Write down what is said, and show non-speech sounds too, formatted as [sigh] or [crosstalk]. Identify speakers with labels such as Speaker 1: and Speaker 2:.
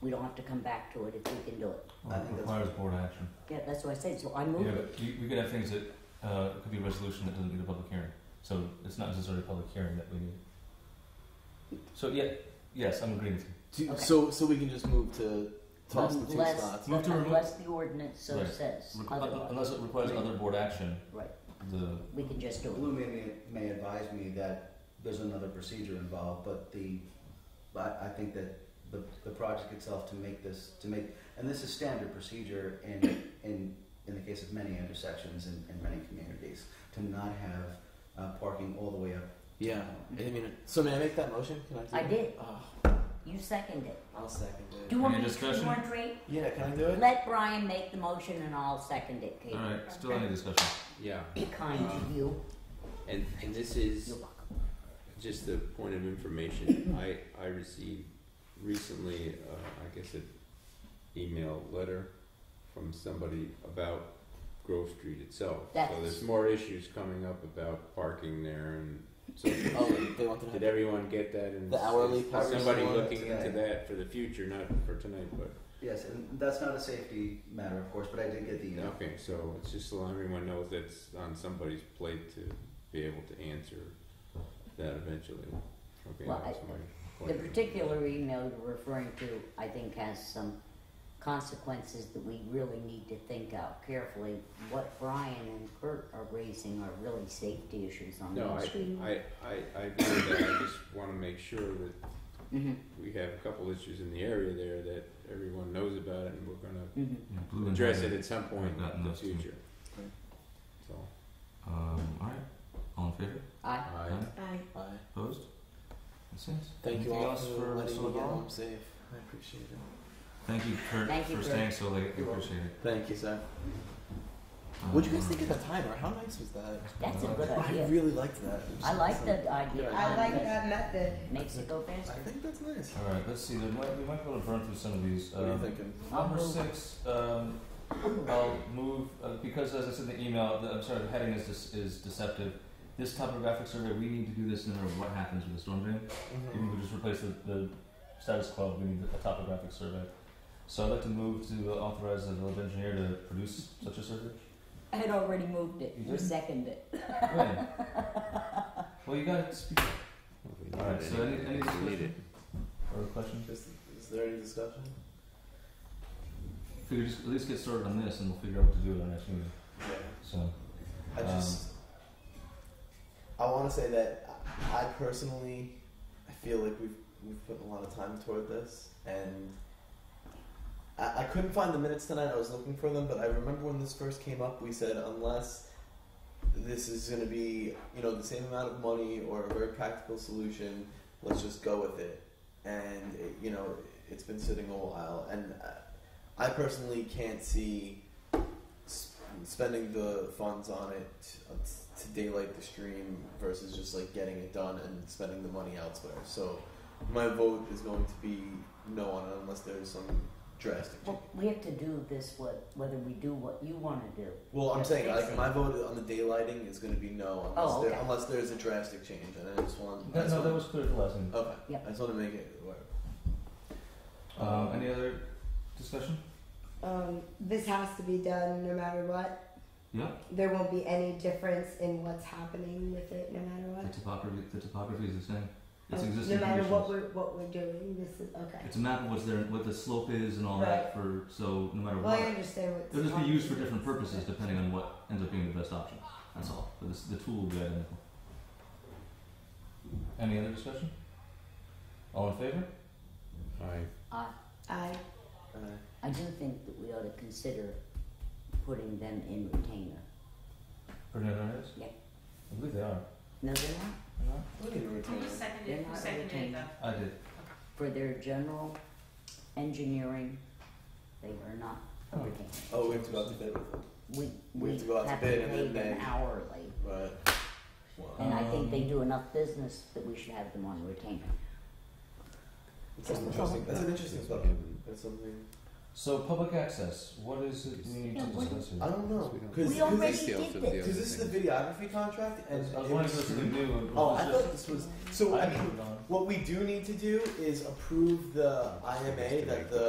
Speaker 1: we don't have to come back to it if we can do it.
Speaker 2: Well,
Speaker 3: I
Speaker 2: it
Speaker 3: think that's-
Speaker 2: requires board action.
Speaker 1: Yeah, that's what I said, so I
Speaker 2: Yeah,
Speaker 1: moved it.
Speaker 2: but you, we could have things that, uh, it could be a resolution that doesn't need a public hearing, so it's not necessarily a public hearing that we need. So, yeah, yes, I'm agreeing with you.
Speaker 3: Do-
Speaker 1: Okay.
Speaker 3: So so we can just move to toss the two
Speaker 1: Unless-
Speaker 3: spots.
Speaker 2: Move to remove-
Speaker 1: Unless the ordinance so
Speaker 2: Right.
Speaker 1: says,
Speaker 2: Requ- uh,
Speaker 1: otherwise,
Speaker 2: Unless it requires other board action,
Speaker 1: right,
Speaker 2: the,
Speaker 1: we can just do
Speaker 2: Mm.
Speaker 4: Lou may, may, may advise me that there's another procedure involved, but the, but I think that the, the project itself to make this, to make, and this is standard procedure in, in, in the case of many intersections in, in many communities, to not have uh, parking all the way up.
Speaker 3: Yeah. I mean, so may I make that motion? Can I? Do
Speaker 1: I
Speaker 3: that?
Speaker 1: did.
Speaker 3: Oh,
Speaker 1: it. You second it.
Speaker 3: I'll second it.
Speaker 1: Do you want
Speaker 2: Any
Speaker 1: me to, you
Speaker 2: discussion?
Speaker 1: want Ray?
Speaker 3: yeah, can I do it?
Speaker 1: Let Brian make the motion and I'll second it, Kate.
Speaker 2: alright, still any discussion?
Speaker 5: Yeah,
Speaker 1: Be kind to you,
Speaker 5: and, and this
Speaker 1: you're
Speaker 5: is
Speaker 1: welcome.
Speaker 5: just a point
Speaker 1: [coughs]
Speaker 5: of information. I, I received recently, uh, I guess, an email letter from somebody about Grove Street itself.
Speaker 1: That's-
Speaker 5: So there's more issues coming up about parking there and so forth.
Speaker 1: [coughs]
Speaker 3: Oh, they want to.
Speaker 5: Did everyone get that? And
Speaker 3: The
Speaker 5: is-
Speaker 3: hourly
Speaker 5: is
Speaker 3: parking
Speaker 5: Somebody
Speaker 3: one
Speaker 5: looking
Speaker 4: today.
Speaker 5: into that for the future, not for tonight, but
Speaker 4: Yes, and that's not a safety matter, of course, but I did get the email.
Speaker 5: Okay, so it's just so everyone knows that's on somebody's plate to be able to answer that eventually. Okay,
Speaker 1: Well,
Speaker 5: that was my
Speaker 1: The
Speaker 5: point.
Speaker 1: particular email you're referring to, I think, has some consequences that we really need to think out carefully. What Brian and Kurt are raising are really safety issues on
Speaker 5: No,
Speaker 1: Main Street.
Speaker 5: I, I, I, I agree with that, I just wanna make sure that
Speaker 1: Mm-hmm,
Speaker 5: we have a couple issues in the area there that everyone knows about it and we're gonna
Speaker 1: mm-hmm.
Speaker 2: Yeah, Blue and
Speaker 5: address
Speaker 2: red.
Speaker 5: it at some point
Speaker 2: I've gotten
Speaker 5: in the
Speaker 2: those too.
Speaker 5: future.
Speaker 3: Okay.
Speaker 5: So,
Speaker 2: Um, alright, all in favor?
Speaker 1: I,
Speaker 5: I,
Speaker 2: Aye.
Speaker 6: Aye.
Speaker 3: Bye.
Speaker 2: Opposed? Makes sense.
Speaker 3: Thank
Speaker 2: Anything
Speaker 3: you all
Speaker 2: else
Speaker 3: for,
Speaker 2: for
Speaker 3: letting me
Speaker 2: Solidar?
Speaker 3: get home safe. I appreciate it.
Speaker 2: Thank you, Kurt,
Speaker 1: Thank you,
Speaker 2: for
Speaker 1: Kurt.
Speaker 2: staying so late. I
Speaker 4: You're welcome.
Speaker 2: appreciate it.
Speaker 3: Thank you, sir. What'd you guys
Speaker 2: Um,
Speaker 3: think of the timer? How nice was that?
Speaker 1: that's a good
Speaker 3: I
Speaker 1: idea.
Speaker 3: really liked that. It was
Speaker 1: I like
Speaker 3: awesome.
Speaker 1: the idea.
Speaker 3: Yeah,
Speaker 6: I like
Speaker 1: It
Speaker 6: that method.
Speaker 1: Makes it go
Speaker 3: I
Speaker 1: faster.
Speaker 3: think that's nice.
Speaker 2: All right, let's see. There might, we might be able to burn through some of these.
Speaker 3: What are you
Speaker 2: Um,
Speaker 3: thinking?
Speaker 2: Number six, um, I'll move, uh, because as I said in the email, the, I'm sorry, the heading is, dis- is deceptive. This topographic survey, we need to do this no matter what happens with the storm drain. Even if
Speaker 3: mm-hmm.
Speaker 2: we just replace the, the status quo, we need a topographic survey. So I'd like to move to authorize the village engineer to produce such a survey.
Speaker 1: I had already moved it,
Speaker 2: You
Speaker 1: you
Speaker 2: did?
Speaker 1: seconded it.
Speaker 2: When? Well, you gotta speak,
Speaker 5: we
Speaker 2: All right,
Speaker 5: need
Speaker 2: so
Speaker 5: it
Speaker 2: any- any
Speaker 5: anyway, we need
Speaker 2: discussion?
Speaker 5: it.
Speaker 2: or a question?
Speaker 3: Is, is there any discussion?
Speaker 2: If we could just at least get started on this and we'll figure out what to do at our next meeting,
Speaker 3: Yeah.
Speaker 2: so.
Speaker 3: I just. I want to say that I I personally, I feel like we've we've put a lot of time toward this, and I, I couldn't find the minutes tonight. I was looking for them, but I remember when this first came up, we said unless this is going to be you know the same amount of money or a very practical solution, let's just go with it. And it, you know it's been sitting a while, and uh, I, I personally can't see s- spending the funds on it uh, t- to daylight the stream versus just like getting it done and spending the money elsewhere. So my vote is going to be no on it unless there's some drastic change.
Speaker 1: Well, we have to do this, what, whether we do what you wanna do.
Speaker 3: Well, I'm
Speaker 1: Yes,
Speaker 3: saying like
Speaker 1: basically.
Speaker 3: my vote on the daylighting is going to be no unless,
Speaker 1: Oh,
Speaker 3: there,
Speaker 1: okay.
Speaker 3: unless there's a drastic change, and I just want I
Speaker 2: That,
Speaker 3: just
Speaker 2: no, that
Speaker 3: want-
Speaker 2: was clear at the last meeting.
Speaker 3: okay.
Speaker 1: Yep.
Speaker 3: I just want to make it work.
Speaker 2: Um, any other discussion?
Speaker 6: Um, this has to be done no matter what.
Speaker 2: Yeah.
Speaker 6: There won't be any difference in what's happening with it no matter
Speaker 2: The
Speaker 6: what.
Speaker 2: topography, the topography is the same. It's
Speaker 6: Oh,
Speaker 2: existing
Speaker 6: no matter what
Speaker 2: conditions.
Speaker 6: we're what we're doing, this is okay.
Speaker 2: It's a map of what's there, what the slope is and all that for, so no matter
Speaker 6: Well, I
Speaker 2: what.
Speaker 6: understand what.
Speaker 2: It'll just be used for different purposes depending on what ends up being the best option, that's all. But this, the tool will be identical. Any other discussion? All in favor?
Speaker 5: I,
Speaker 1: I,
Speaker 6: I
Speaker 3: Uh,
Speaker 1: I do think that we ought to consider putting them in retainer.
Speaker 2: Putting it on this?
Speaker 1: Yeah.
Speaker 2: I believe they are.
Speaker 1: No, they're not,
Speaker 3: we can retain it.
Speaker 1: they're not a retainer.
Speaker 2: I did.
Speaker 1: For their general engineering, they are not a
Speaker 2: Oh.
Speaker 1: retainer.
Speaker 3: Oh, we have to go out to bid with it.
Speaker 1: We,
Speaker 3: We
Speaker 1: we
Speaker 3: have to go out to
Speaker 1: have to
Speaker 3: bid and
Speaker 1: pay
Speaker 3: then
Speaker 1: them
Speaker 3: they-
Speaker 1: hourly,
Speaker 3: But
Speaker 1: and I think they
Speaker 2: Um,
Speaker 1: do enough business that we should have them on retainer.
Speaker 3: it's an interesting. That's an interesting thought. That's something.
Speaker 2: So public access, what is it we need to
Speaker 1: Yeah, what-
Speaker 2: discuss
Speaker 3: I
Speaker 2: here?
Speaker 3: don't know.
Speaker 5: We don't-
Speaker 3: Cause,
Speaker 1: We
Speaker 3: 'cause
Speaker 1: already
Speaker 3: this,
Speaker 5: Details
Speaker 1: did this.
Speaker 5: of the other
Speaker 3: cause this is
Speaker 5: thing.
Speaker 3: the videography contract,
Speaker 2: I
Speaker 3: and
Speaker 2: was I was
Speaker 3: it
Speaker 2: wondering
Speaker 3: was-
Speaker 2: if this was new. and-
Speaker 3: Oh,
Speaker 2: was
Speaker 3: I
Speaker 2: just-
Speaker 3: thought this was. So I mean,
Speaker 2: moved on.
Speaker 3: what we do need to do is approve the IMA that the